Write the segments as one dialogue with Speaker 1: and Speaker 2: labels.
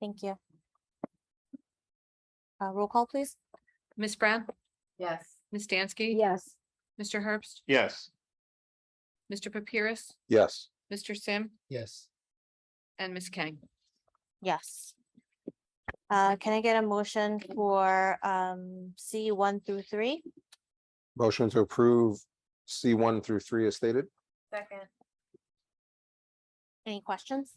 Speaker 1: Thank you. Uh, roll call, please.
Speaker 2: Ms. Brown,
Speaker 3: Yes.
Speaker 2: Ms. Dansky.
Speaker 4: Yes.
Speaker 2: Mr. Herbst,
Speaker 5: Yes.
Speaker 2: Mr. Papyrus,
Speaker 5: Yes.
Speaker 2: Mr. Sim,
Speaker 6: yes,
Speaker 2: and Ms. Kang.
Speaker 1: Yes. Uh, can I get a motion for, um, C one through three?
Speaker 5: Motion to approve C one through three as stated?
Speaker 3: Second.
Speaker 1: Any questions?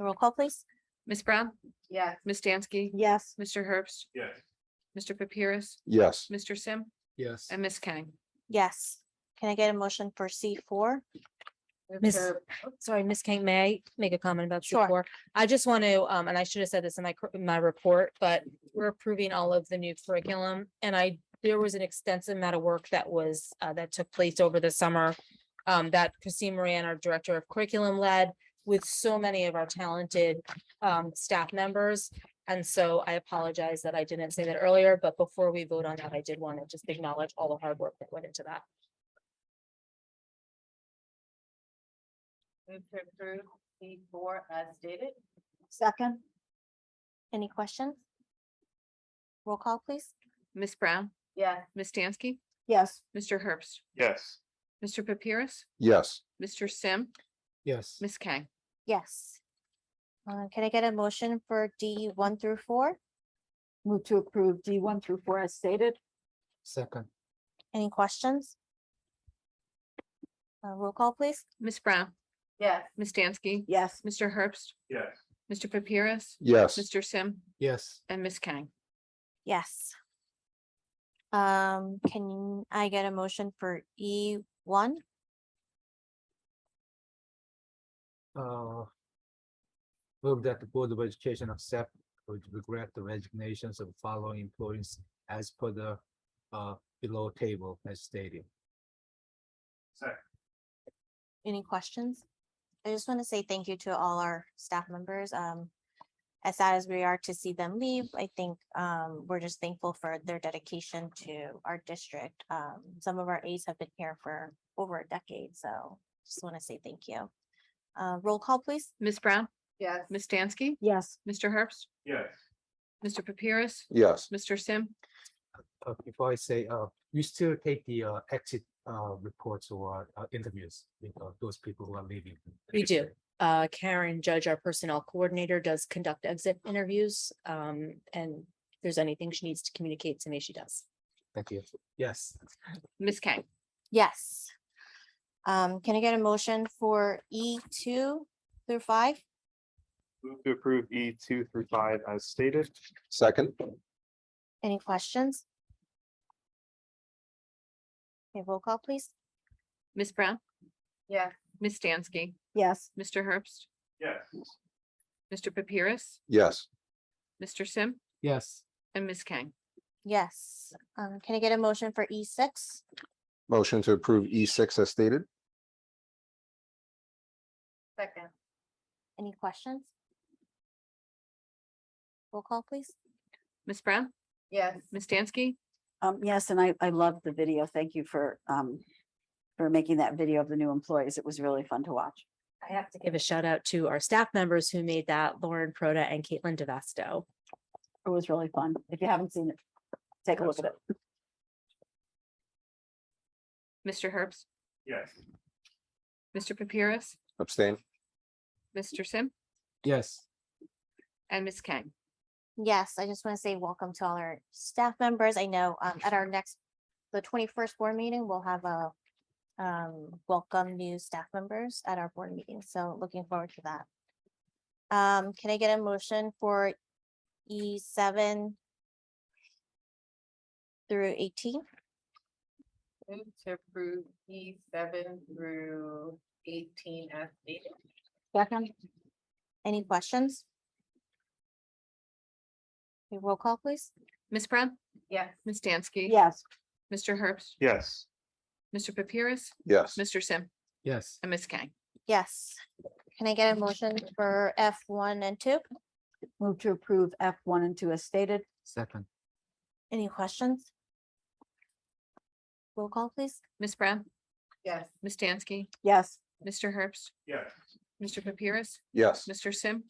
Speaker 1: Roll call, please.
Speaker 2: Ms. Brown,
Speaker 3: Yes.
Speaker 2: Ms. Dansky,
Speaker 4: Yes.
Speaker 2: Mr. Herbst,
Speaker 5: Yes.
Speaker 2: Mr. Papyrus,
Speaker 5: Yes.
Speaker 2: Mr. Sim,
Speaker 6: yes,
Speaker 2: and Ms. Kang.
Speaker 1: Yes. Can I get a motion for C four?
Speaker 3: Move
Speaker 7: Miss-
Speaker 3: to-
Speaker 7: Sorry, Ms. King, may I make a comment about
Speaker 1: Sure.
Speaker 7: C4? I just want to, um, and I should have said this in my, cur- in my report, but we're approving all of the new curriculum. And I, there was an extensive amount of work that was, uh, that took place over the summer. Um, that Christine Moran, our Director of Curriculum led with so many of our talented, um, staff members. And so I apologize that I didn't say that earlier, but before we vote on that, I did want to just acknowledge all the hard work that went into that.
Speaker 3: Move to approve C four as stated.
Speaker 4: Second?
Speaker 1: Any questions? Roll call, please.
Speaker 2: Ms. Brown,
Speaker 3: Yes.
Speaker 2: Ms. Dansky,
Speaker 4: Yes.
Speaker 2: Mr. Herbst,
Speaker 5: Yes.
Speaker 2: Mr. Papyrus,
Speaker 5: Yes.
Speaker 2: Mr. Sim,
Speaker 6: yes,
Speaker 2: Ms. Kang.
Speaker 1: Yes. Uh, can I get a motion for D one through four?
Speaker 4: Move to approve D one through four as stated?
Speaker 6: second,
Speaker 1: Any questions? Uh, roll call, please.
Speaker 2: Ms. Brown,
Speaker 3: Yes.
Speaker 2: Ms. Dansky,
Speaker 4: Yes.
Speaker 2: Mr. Herbst,
Speaker 5: Yes.
Speaker 2: Mr. Papyrus,
Speaker 5: Yes.
Speaker 2: Mr. Sim,
Speaker 6: yes,
Speaker 2: and Ms. Kang.
Speaker 1: Yes. Um, can I get a motion for E one?
Speaker 6: uh. Move that the Board of Education accept with regret the resignations of following employees as per the uh below table as stated.
Speaker 1: Any questions? I just want to say thank you to all our staff members. Um, as sad as we are to see them leave, I think, um, we're just thankful for their dedication to our district. Um, some of our aides have been here for over a decade, so just want to say thank you. Uh, roll call, please.
Speaker 2: Ms. Brown,
Speaker 3: Yes.
Speaker 2: Ms. Dansky,
Speaker 4: Yes.
Speaker 2: Mr. Herbst,
Speaker 5: Yes.
Speaker 2: Mr. Papyrus,
Speaker 5: Yes.
Speaker 2: Mr. Sim,
Speaker 6: Uh, before I say, uh, you still take the uh exit uh reports or uh, interviews with uh, those people who are leaving.
Speaker 7: We do. Uh, Karen Judge, our personnel coordinator, does conduct exit interviews. Um, and if there's anything she needs to communicate to me, she does.
Speaker 6: Thank you. Yes,
Speaker 2: Ms. Kang.
Speaker 1: Yes. Um, can I get a motion for E two through five?
Speaker 5: Move to approve E two through five as stated. Second?
Speaker 1: Any questions? Okay, roll call, please.
Speaker 2: Ms. Brown,
Speaker 3: Yes.
Speaker 2: Ms. Dansky,
Speaker 4: Yes.
Speaker 2: Mr. Herbst,
Speaker 5: Yes.
Speaker 2: Mr. Papyrus,
Speaker 5: Yes.
Speaker 2: Mr. Sim,
Speaker 6: yes,
Speaker 2: and Ms. Kang.
Speaker 1: Yes, um, can I get a motion for E six?
Speaker 5: Motion to approve E six as stated?
Speaker 3: Second.
Speaker 1: Any questions? Roll call, please.
Speaker 2: Ms. Brown,
Speaker 3: Yes.
Speaker 2: Ms. Dansky,
Speaker 4: Um, yes, and I, I love the video. Thank you for, um, for making that video of the new employees. It was really fun to watch.
Speaker 7: I have to give a shout out to our staff members who made that, Lauren Proda and Caitlin DeVasto.
Speaker 4: It was really fun. If you haven't seen it, take a look at it.
Speaker 2: Mr. Herbst,
Speaker 5: Yes.
Speaker 2: Mr. Papyrus,
Speaker 5: Abstain?
Speaker 2: Mr. Sim,
Speaker 6: yes.
Speaker 2: and Ms. Kang.
Speaker 1: Yes, I just want to say welcome to all our staff members. I know, um, at our next, the twenty-first board meeting, we'll have a um, welcome new staff members at our board meeting, so looking forward to that. Um, can I get a motion for E seven through eighteen?
Speaker 3: Move to approve E seven through eighteen as stated.
Speaker 4: Second?
Speaker 1: Any questions? Okay, Roll call, please.
Speaker 2: Ms. Brown,
Speaker 3: Yes.
Speaker 2: Ms. Dansky.
Speaker 4: Yes.
Speaker 2: Mr. Herbst,
Speaker 5: Yes.
Speaker 2: Mr. Papyrus,
Speaker 5: Yes.
Speaker 2: Mr. Sim,
Speaker 6: Yes,
Speaker 2: and Ms. Kang.
Speaker 1: Yes. Can I get a motion for F one and two?
Speaker 4: Move to approve F one and two as stated?
Speaker 6: second,
Speaker 1: Any questions? Roll call, please.
Speaker 2: Ms. Brown,
Speaker 3: Yes.
Speaker 2: Ms. Dansky,
Speaker 4: Yes.
Speaker 2: Mr. Herbst,
Speaker 5: Yes.
Speaker 2: Mr. Papyrus,
Speaker 5: Yes.
Speaker 2: Mr. Sim,